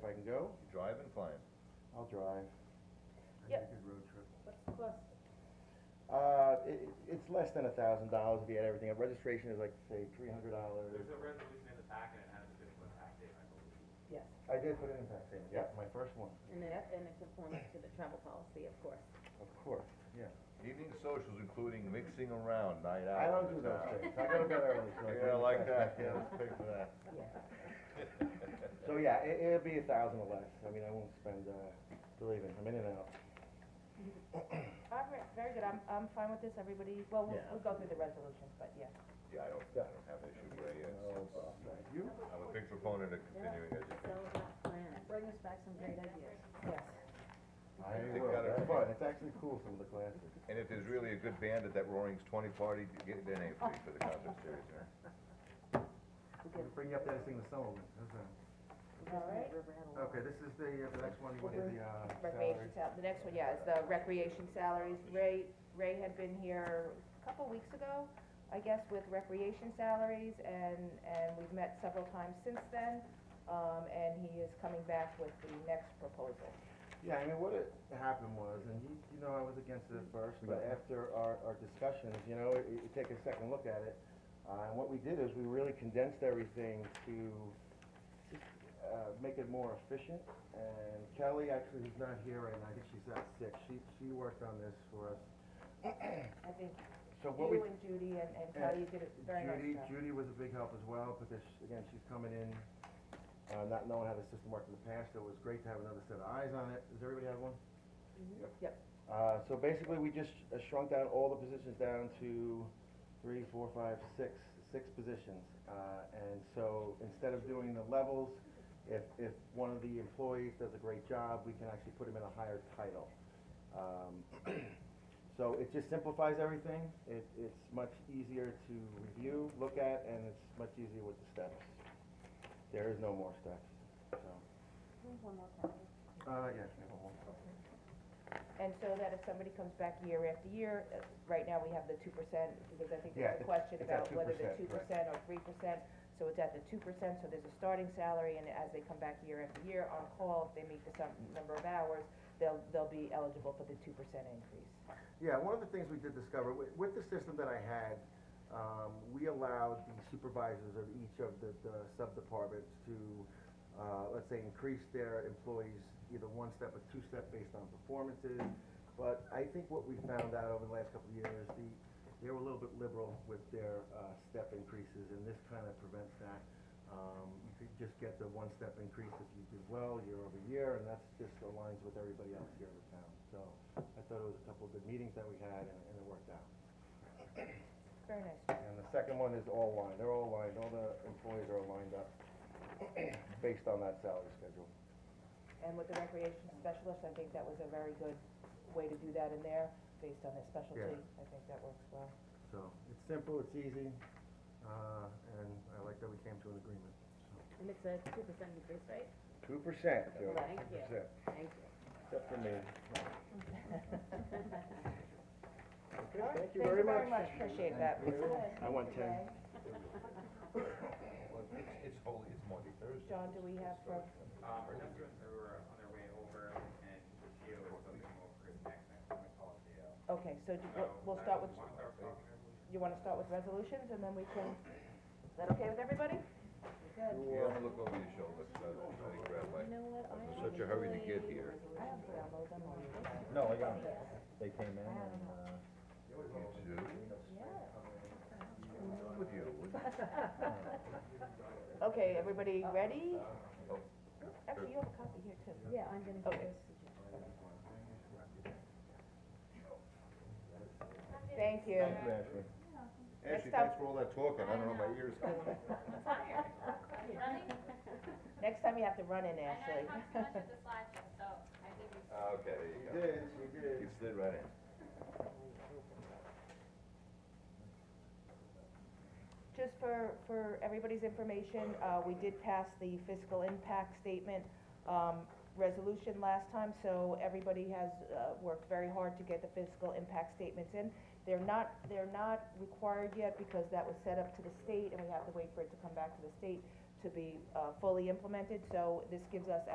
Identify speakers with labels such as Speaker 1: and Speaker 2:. Speaker 1: I can go,
Speaker 2: You drive and flying.
Speaker 1: I'll drive.
Speaker 3: Yep.
Speaker 1: Good road trip.
Speaker 3: What's the cost?
Speaker 1: Uh, it, it's less than a thousand dollars if you add everything up, registration is like, say, three hundred dollars.
Speaker 4: There's a resolution in the packet, it has a different tax date, I believe.
Speaker 3: Yes,
Speaker 1: I did put it in tax savings, yeah, my first one,
Speaker 3: and that, and it conforms to the travel policy, of course.
Speaker 1: of course, yeah.
Speaker 2: Evening socials including mixing around, night out.
Speaker 1: I don't do those things, I go to bed early, so. I
Speaker 2: Yeah,
Speaker 1: don't
Speaker 2: like
Speaker 1: do
Speaker 2: that, yeah, let's pay for that.
Speaker 1: So, yeah, it, it'll be a thousand or less, I mean, I won't spend, uh, believe me, I'm in and out.
Speaker 3: All right, very good, I'm, I'm fine with this, everybody, well, we'll,
Speaker 1: Yeah.
Speaker 3: we'll go through the resolutions, but yeah.
Speaker 2: Yeah, I don't, I don't have an issue with it.
Speaker 1: Oh, Thank you.
Speaker 2: I'm a big proponent of continuing education.
Speaker 3: uh, Bring us back some great ideas. Yes.
Speaker 1: I
Speaker 2: think
Speaker 1: will,
Speaker 2: that'll
Speaker 1: that's
Speaker 2: be-
Speaker 1: fun, it's actually cool, some of the classes.
Speaker 2: And if there's really a good band at that Roaring's Twenty party, get their name free for the concert series, you know?
Speaker 1: Bring you up there to sing the song, that's all.
Speaker 3: All right,
Speaker 1: Okay, this is the, uh, the next one, you want to do the, uh,
Speaker 3: recreation
Speaker 1: salary.
Speaker 3: sal, the next one, yeah, is the recreation salaries. Ray, Ray had been here a couple weeks ago, I guess, with recreation salaries, and, and we've met several times since then. Um, and he is coming back with the next proposal.
Speaker 1: Yeah, I mean, what it happened was, and you, you know, I was against it at first, but after our, our discussions, you know, you, you take a second look at it. Uh, and what we did is we really condensed everything to, just, uh, make it more efficient. And Kelly actually is not here right now, I think she's out sick, she, she worked on this for us.
Speaker 3: I think
Speaker 1: So what we
Speaker 3: you and Judy and, and
Speaker 1: Yeah.
Speaker 3: Kelly did a very nice
Speaker 1: Judy,
Speaker 3: job.
Speaker 1: Judy was a big help as well, because, again, she's coming in, uh, not knowing how the system worked in the past, so it was great to have another set of eyes on it. Does everybody have one?
Speaker 3: Mm-hmm. Yep.
Speaker 1: Uh, so basically, we just uh, shrunk down all the positions down to three, four, five, six, six positions. Uh, and so instead of doing the levels, if, if one of the employees does a great job, we can actually put him in a higher title. Um, so it just simplifies everything. It, it's much easier to review, look at, and it's much easier with the steps. There is no more steps, so. Uh, yes, we have a whole-
Speaker 3: And so that if somebody comes back year after year, uh, right now we have the two percent, because I think
Speaker 1: Yeah,
Speaker 3: there's a
Speaker 1: it's-
Speaker 3: question
Speaker 1: it's at
Speaker 3: about whether the
Speaker 1: 2%,
Speaker 3: two
Speaker 1: correct.
Speaker 3: percent or three percent. So it's at the two percent, so there's a starting salary, and as they come back year after year on call, if they meet the some number of hours, they'll, they'll be eligible for the two percent increase.
Speaker 1: Yeah, one of the things we did discover, with, with the system that I had, um, we allowed the supervisors of each of the, the sub-departments to, uh, let's say, increase their employees either one step or two step based on performances. But I think what we found out over the last couple of years, the, they were a little bit liberal with their, uh, step increases, and this kind of prevents that. Um, you could just get the one step increase if you did well year over year, and that's just aligns with everybody else here in the town, so. I thought it was a couple of good meetings that we had, and, and it worked out.
Speaker 3: Very nice.
Speaker 1: And the second one is all lined, they're all lined, all the employees are lined up based on that salary schedule.
Speaker 3: And with the recreation specialist, I think that was a very good way to do that in there, based on their specialty. I think that works well.
Speaker 1: So, it's simple, it's easy, uh, and I like that we came to an agreement, so.
Speaker 5: And it's a two percent increase, right?
Speaker 1: Two percent, Joe,
Speaker 5: Thank
Speaker 1: two
Speaker 5: you.
Speaker 1: percent,
Speaker 5: Thank you.
Speaker 1: except for me. Okay,
Speaker 3: All right,
Speaker 1: thank you very much.
Speaker 3: Appreciate that.
Speaker 1: I want ten.
Speaker 2: Well, it's- It's holy, it's Monday, Thursday.
Speaker 3: John, do we have for,
Speaker 4: Um, our restaurants are on their way over, and Gio is coming over next, next time we call it Gio.
Speaker 3: okay, so do-
Speaker 4: So,
Speaker 3: we'll
Speaker 4: I
Speaker 3: start
Speaker 4: don't
Speaker 3: with,
Speaker 4: wanna start talking resolution.
Speaker 3: you want to start with resolutions, and then we can, is that okay with everybody? Good.
Speaker 2: Yeah, I'm gonna look over your shoulder, so I don't- I didn't grab my,
Speaker 5: You know what?
Speaker 2: I was in such a hurry to get here.
Speaker 3: I don't put on those, I'm on.
Speaker 6: No, I got them. They came in and, uh,
Speaker 2: You too?
Speaker 3: Yeah.
Speaker 2: With you, would you?
Speaker 3: Okay, everybody ready?
Speaker 2: Oh.
Speaker 3: Actually, you have a copy here too.
Speaker 5: Yeah, I'm gonna give
Speaker 3: Okay.
Speaker 5: this to Jen.
Speaker 3: Thank
Speaker 6: thank you,
Speaker 3: you.
Speaker 6: Ashley.
Speaker 2: Ashley,
Speaker 3: Next up-
Speaker 2: thanks for all that talking, I don't know, my ears.
Speaker 7: I'm tired. Running,
Speaker 3: Next time you have to run in,
Speaker 7: I know I
Speaker 3: Ashley.
Speaker 7: talked too much at the slideshow, so I think we
Speaker 2: Ah, Okay, there you go.
Speaker 1: she
Speaker 2: You slid right in.
Speaker 3: Just for, for everybody's information, uh, we did pass the fiscal impact statement, um, resolution last time, so everybody has, uh, worked very hard to get the fiscal impact statements in. They're not, they're not required yet because that was set up to the state and we have to wait for it to come back to the state to be, uh, fully implemented, so this gives us